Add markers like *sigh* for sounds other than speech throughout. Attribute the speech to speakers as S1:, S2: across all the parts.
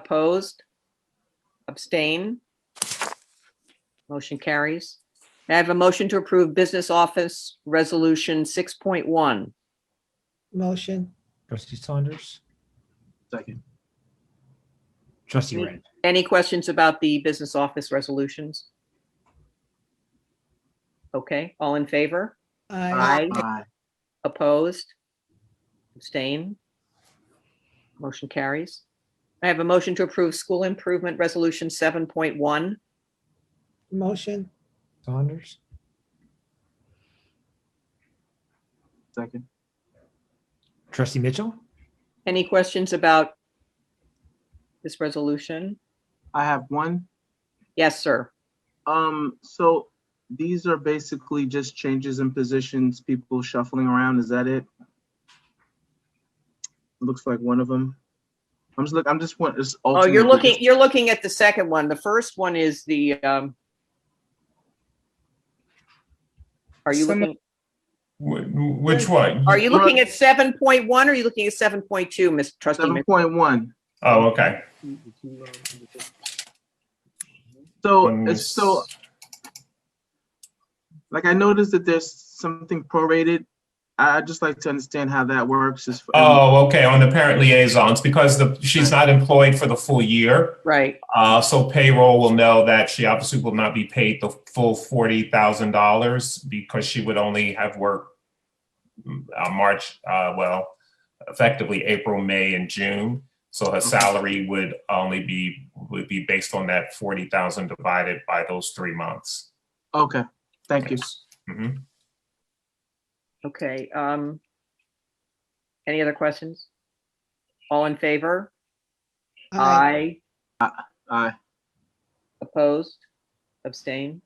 S1: Opposed? Abstain? Motion carries. May I have a motion to approve Business Office Resolution 6.1?
S2: motion,
S3: Trustee Saunders.
S4: Second.
S3: Trustee
S1: Me.
S3: Ren.
S1: Any questions about the Business Office Resolutions? Okay, all in favor?
S2: aye,
S1: Aye.
S4: Aye.
S1: Opposed? Abstain? Motion carries. I have a motion to approve School Improvement Resolution 7.1.
S2: motion,
S3: Saunders.
S4: Second.
S3: Trustee Mitchell.
S1: Any questions about this resolution?
S4: I have one.
S1: Yes, sir.
S4: Um, so these are basically just changes in positions, people shuffling around. Is that it? Looks like one of them. I'm just look, I'm just want, it's.
S1: Oh, you're
S4: alternate, but
S1: looking,
S4: just-
S1: you're looking at the second one. The first one is the, um, are you
S5: Some-
S1: looking,
S5: Wh- Which one?
S1: are you
S4: Well-
S1: looking at 7.1 or are you looking at 7.2, Ms. Trustee?
S4: Seven
S1: Mitchell?
S4: point one.
S5: Oh, okay.
S4: So,
S5: When we
S4: Oh, it's- so, like, I noticed that there's something prorated. I, I'd just like to understand how that works. is-
S5: Oh, okay, on the parent liaisons, because the, she's not employed for the full year.
S1: Right,
S5: Uh, so payroll will know that she obviously will not be paid the full forty thousand dollars because she would only have worked mm, uh, March, uh, well, effectively April, May, and June. So her salary would only be, would be based on that forty thousand divided by those three months.
S4: Okay, thank you.
S5: Mhm.
S1: okay. Um, any other questions? All in favor?
S2: aye,
S1: Aye.
S4: Aye.
S1: Opposed? Abstain?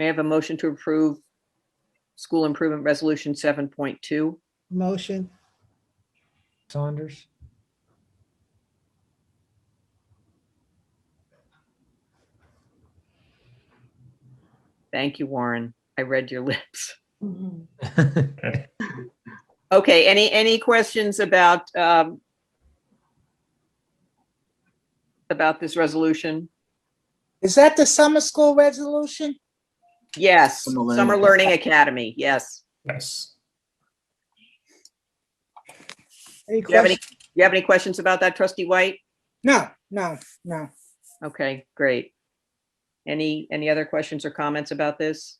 S1: May I have a motion to approve School Improvement Resolution 7.2?
S2: motion,
S3: *laughs* Saunders.
S1: Thank you, Warren. I read your *laughs* lips. Okay, any, any questions about, um, about this resolution?
S6: Is that the summer school resolution?
S1: Yes,
S4: Summer Learning
S1: Summer Learning Academy, yes.
S5: Yes.
S6: Any
S1: Do you have any,
S6: questions?
S1: you have any questions about that, trustee White?
S6: No, no, no.
S1: Okay, great. Any, any other questions or comments about this?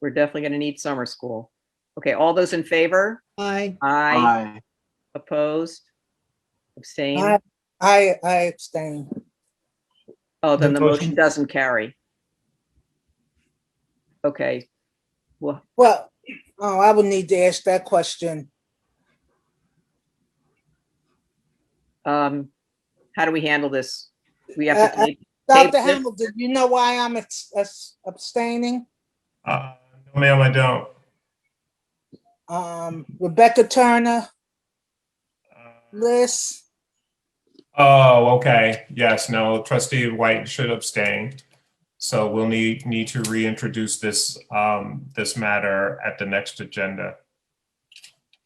S1: We're definitely gonna need summer school. Okay, all those in favor?
S2: aye,
S1: Aye,
S4: Aye.
S1: opposed? Abstain?
S6: I, I I abstain.
S1: Oh, then the
S3: The
S1: motion
S3: motion-
S1: doesn't carry. Okay, well,
S6: Well, oh, I would need to ask that question.
S1: um, how do we handle this? We have to,
S6: Uh,
S1: take-
S6: Dr.
S1: Dave-
S6: Hamel, did you know why I'm abs- abs- abstaining?
S5: Uh, no, ma'am, I don't.
S6: Um, Rebecca Turner,
S5: Uh,
S6: Liz,
S5: Oh, okay. Yes, no, trustee White should abstain. So we'll need, need to reintroduce this, um, this matter at the next agenda.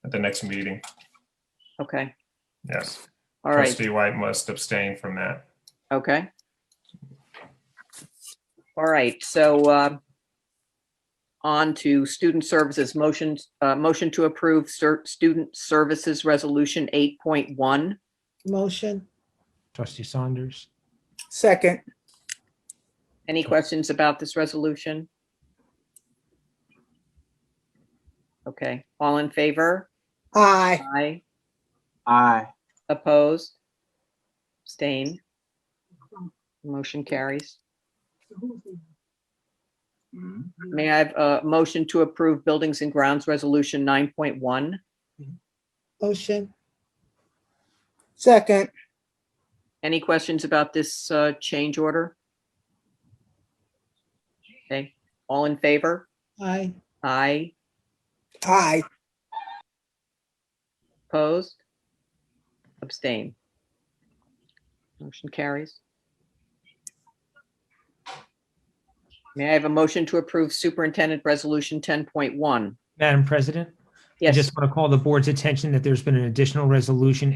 S5: At the next meeting,
S1: okay,
S5: yes.
S1: all right,
S5: Trustee White must abstain from that.
S1: okay. All right, so, uh, on to student services motions, uh, motion to approve cer- student services resolution eight point one.
S2: motion,
S3: Trustee Saunders.
S6: second.
S1: Any questions about this resolution? Okay, all in favor?
S6: Aye,
S1: Aye.
S4: Aye.
S1: Opposed? Abstain? Motion carries.
S4: Mhm.
S1: May I have a motion to approve Buildings and Grounds Resolution 9.1?
S2: motion,
S6: second.
S1: Any questions about this uh, change order? Okay, all in favor?
S2: aye,
S1: Aye.
S6: Aye,
S1: Opposed? Abstain? Motion carries. May I have a motion to approve Superintendent Resolution 10.1?
S3: Madam President. I
S1: Yes.
S3: just want to call the board's attention that there's been an additional resolution